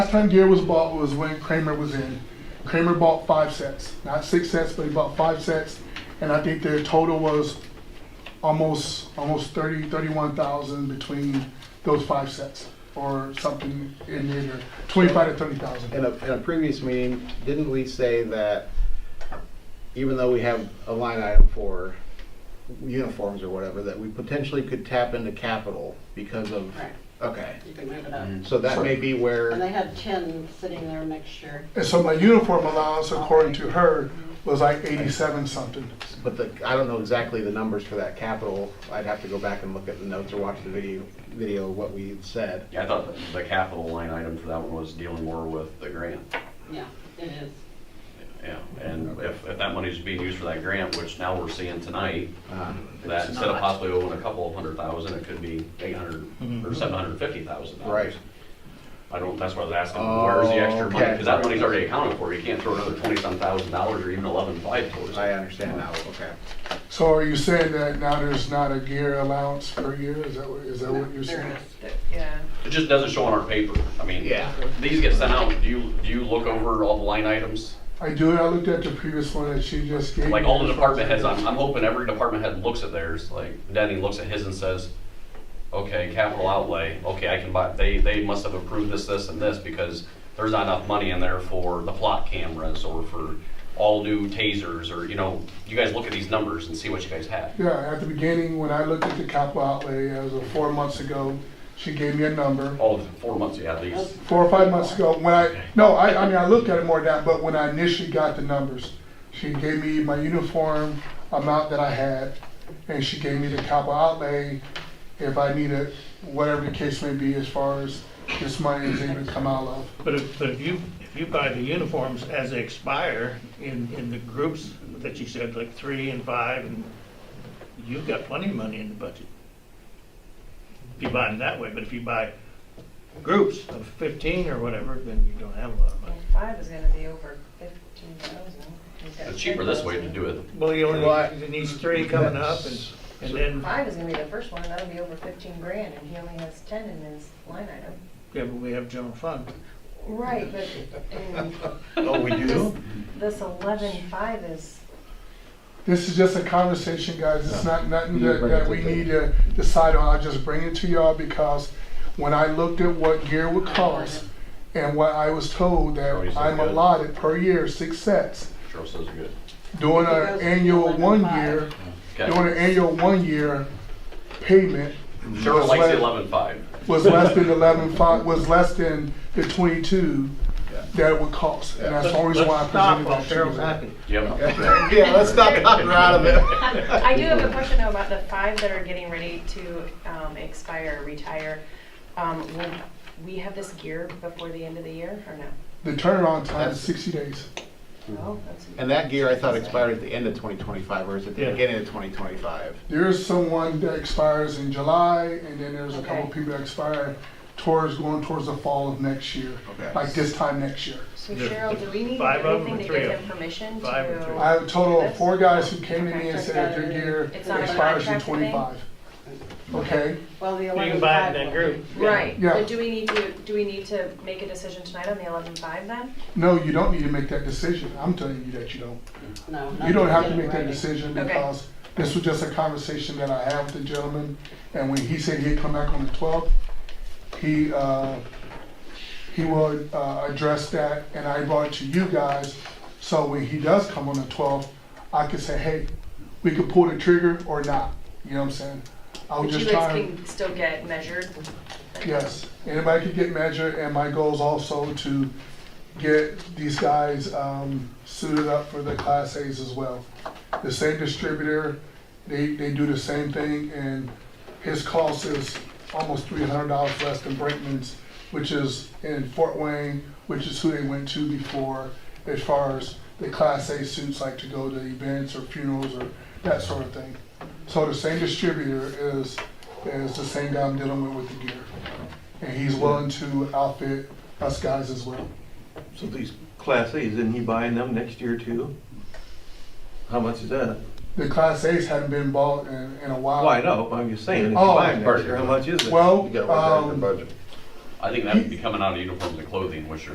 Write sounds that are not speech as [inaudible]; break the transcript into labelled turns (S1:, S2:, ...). S1: time gear was bought was when Kramer was in. Kramer bought five sets, not six sets, but he bought five sets, and I think their total was almost almost thirty thirty-one thousand between those five sets, or something in there, twenty-five to thirty thousand.
S2: In a, in a previous meeting, didn't we say that even though we have a line item for uniforms or whatever, that we potentially could tap into capital because of,
S3: Right,
S2: okay.
S3: you can move it up.
S2: So that may be
S3: And
S2: where,
S3: they had ten sitting there next year.
S1: And so my uniform allowance, according to her, was like eighty-seven something.
S2: but the, I don't know exactly the numbers for that capital. I'd have to go back and look at the notes or watch the video, video of what we said.
S4: Yeah, I thought the- the capital line item for that one was dealing more with the grant.
S3: Yeah, it is.
S4: Yeah, and if, if that money's being used for that grant, which now we're seeing tonight,
S2: Uh,
S4: that instead of possibly owing a couple of hundred thousand, it could be eight hundred or seven hundred fifty thousand
S2: Mm-hmm. Right.
S4: dollars.
S2: Oh,
S4: I don't, that's why I was asking, where's the extra money?
S2: Okay.
S4: Because that money's already accounted for. You can't throw another twenty-some thousand dollars or even eleven-five towards
S2: I
S4: it.
S2: understand now, okay.
S1: So are you saying that now there's not a gear allowance per year? Is that what, is that what
S3: There
S1: you're
S3: it
S1: saying?
S3: is.
S5: Yeah.
S4: It just doesn't show on our paper. I mean,
S2: Yeah.
S4: these get sent out, do you, do you look over all the line items?
S1: I do, I looked at the previous one that she just gave.
S4: Like all the
S1: me.
S4: department heads, I'm, I'm hoping every department head looks at theirs, like Denny looks at his and says, okay, capital outlay, okay, I can buy, they, they must have approved this, this, and this, because there's not enough money in there for the plot cameras or for all new tasers, or, you know, you guys look at these numbers and see what you guys have.
S1: Yeah, at the beginning, when I looked at the capital outlay, it was uh, four months ago, she gave me a number.
S4: All of the four months, yeah, at least.
S1: Four or five months ago, when I, no, I, I mean, I looked at it more down, but when I initially got the numbers, she gave me my uniform amount that I had, and she gave me the capital outlay, if I needed, whatever the case may be, as far as this money is able to come out of.
S6: But if, but if you, if you buy the uniforms as they expire in, in the groups that you said, like three and five, and you've got plenty of money in the budget. If you buy them that way, but if you buy groups of fifteen or whatever, then you don't have a lot of money.
S5: Well, five is gonna be over fifteen thousand.
S4: It's cheaper this way to do it.
S6: Well, you
S2: Well,
S6: only, it needs three coming up, and, and then,
S5: Five is gonna be the first one, that'll be over fifteen grand, and he only has ten in his line item.
S6: yeah, but we have general fund.
S5: Right, but, um,
S2: Oh, we
S5: this, [laughs] this eleven-five is,
S1: This is just a conversation, guys. It's not nothing that, that we need to decide on. I just bring it to y'all because when I looked at what gear would cost and what I was told that I'm allotted per year, six sets,
S4: Cheryl says you're good.
S1: doing an annual one year, doing
S4: Okay.
S1: an annual one year payment
S4: Cheryl likes the eleven-five.
S1: was less than eleven five, was less than the twenty-two that it would cost. And that's the only reason why I
S6: Let's stop
S1: presented
S6: while
S1: that to you.
S6: Cheryl's happy.
S2: [laughs]
S4: Yep.
S2: Yeah, let's not cut her out of it.
S7: Um, I do have a question though about the five that are getting ready to um, expire, retire. Um, Will we have this gear before the end of the year or no?
S1: The turnaround time is sixty days.
S7: No, that's.
S2: Mm-hmm. And that gear I thought expired at the end of 2025, or is it the
S6: Yeah.
S2: beginning of 2025?
S1: There's someone that expires in July, and then there's a couple
S7: Okay.
S1: people that expire towards, going towards the fall of next year,
S2: Okay.
S1: like this time next year.
S7: So
S6: There-
S7: Cheryl, do we need to do
S6: five of 'em or
S7: anything to
S6: three
S7: give
S6: of 'em?
S7: them permission to?
S6: Five or three.
S1: I have a total of four guys who came to me and said that their gear
S7: It's not a
S1: expires in
S7: contract thing?
S1: twenty-five. Okay,
S3: Well, the
S6: You
S3: eleven
S6: can buy
S3: five.
S6: it in that group.
S7: Right,
S1: Yeah.
S7: but do we need to, do we need to make a decision tonight on the eleven-five then?
S1: no, you don't need to make that decision. I'm telling you that you don't.
S3: No.
S1: You don't have to
S3: nothing
S1: make that
S3: writing.
S1: decision
S7: Okay.
S1: because this was just a conversation that I had with the gentleman. And when he said he'd come back on the twelfth, he, uh, he will, uh, address that and I brought it to you guys. So when he does come on the twelfth, I can say, hey, we could pull the trigger or not, you know what I'm saying? I
S7: But
S1: was
S7: you
S1: just
S7: guys
S1: trying,
S7: can still get measured?
S1: yes, anybody could get measured and my goal is also to get these guys um, suited up for the Class A's as well. The same distributor, they, they do the same thing, and his cost is almost three hundred dollars less than Brinkman's, which is in Fort Wayne, which is who they went to before, as far as the Class A suits like to go to events or funerals or that sort of thing. So the same distributor is, is the same guy I'm dealing with with the gear, and he's willing to outfit us guys as well.
S8: So these Class A's, isn't he buying them next year too? How much is that?
S1: The Class A's haven't been bought in, in a while.
S8: Well, I know, but I'm just saying, if you
S1: Oh.
S8: buy them next year, how much is it?
S1: Well, um,
S4: I think that would be coming out of uniforms and clothing, which are